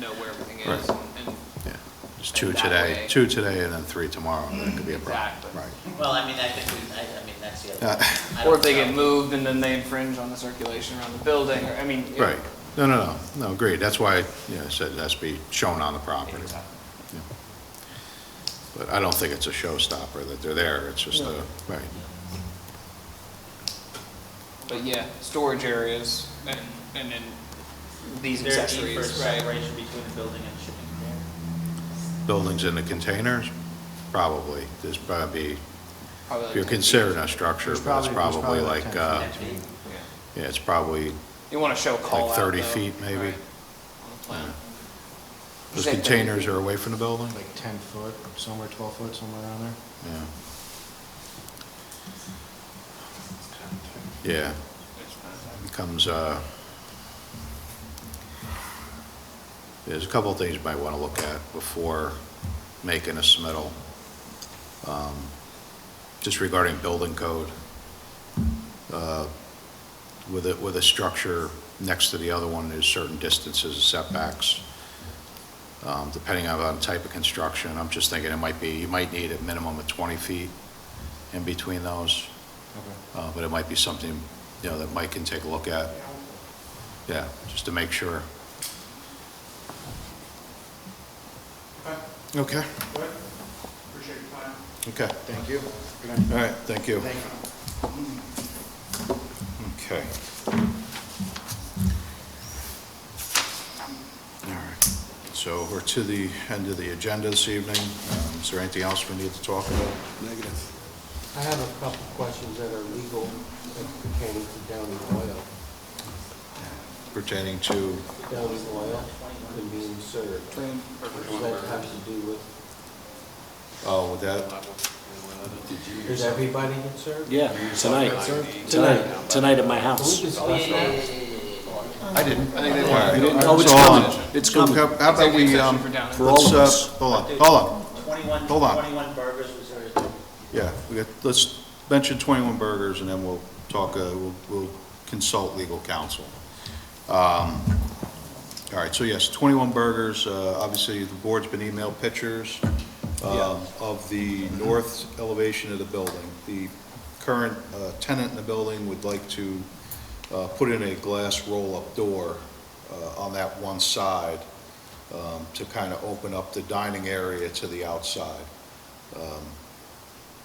know where everything Right. is and. Yeah, There's two that today, way- two today and then three tomorrow, that could be a problem. Exactly. Right. Well, I mean, I think, we- I, I mean, that's the Uh, other. I Or don't if they know. get moved and then they infringe on the circulation around the building, or, I mean. it- Right, no, no, no, no, agreed, that's why, you know, I said it has to be shown on the property. Exactly. Yeah. But I don't think it's a showstopper that they're there, it's just a, No. right, But yeah, storage areas and, and then these Is there a need for a accessories, right? separation between the building and shipping container? buildings in the containers, probably, there's probably, Probably if like you're a- considering a structure, There's but it's probably- there's probably probably like, like uh, Empty? yeah. yeah, it's probably You want to show call out, 30 though, feet, maybe. right, On the plan. Those Same thing. containers are away from the building? like 10 foot, somewhere 12 foot, somewhere around there. Yeah. Yeah, becomes, uh, there's a couple of things you might want to look at before making a submittal. Um, Just regarding building code, uh, with a, with a structure next to the other one, there's certain distances, setbacks um, depending on the type of construction. I'm just thinking it might be, you might need a minimum of 20 feet in between those, Uh, but it might be something, you know, that Mike can take a look at. Yeah, just to make sure. Okay. Appreciate your time. Okay. Thank you. All right, thank you. Okay. All right, so we're to the end of the agenda this evening. Um, Is there anything else we need to talk about? Negative. I have a couple questions that are legal that pertaining to Downey Oil. Pertaining to, Downey Oil and being served. Does that have to do with, oh, with that, is everybody get served? Yeah, tonight, tonight, tonight at my house. Can we Oh, yeah, discuss yeah, yeah, that? yeah, yeah, yeah, yeah. I didn't. I think they Oh, it's coming, it's coming. How about we, um, Executive session for Downey. For all let's, of uh, us. hold on, hold on, 21 Hold on. 21 burgers was there. yeah, we got, let's mention 21 Burgers, and then we'll talk, uh, we'll we'll consult legal counsel. Um, All right, so yes, 21 Burgers, uh, obviously, the board's been emailed pictures um, of the north elevation of the building. The current uh, tenant in the building would like to uh, put in a glass roll-up door uh, on that one side um, to kind of open up the dining area to the outside. Um,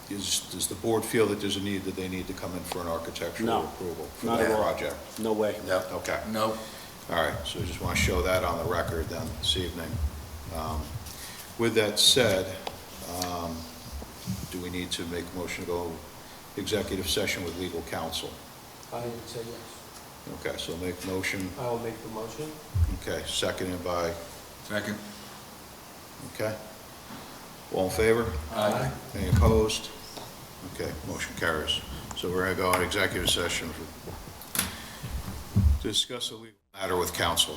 Is, does the board feel that there's a need, that they need to come in for an architectural No, approval for not that at all. project? No way. Okay. No. All right, so I just want to show that on the record then this evening. Um, With that said, um, do we need to make a motion to go executive session with legal counsel? I would say yes. Okay, so make motion, I will make the motion. okay, seconded by, Second. okay? All in favor? Aye. Any opposed? Okay, motion carries. So we're going to go on executive session for, to discuss a legal matter with counsel.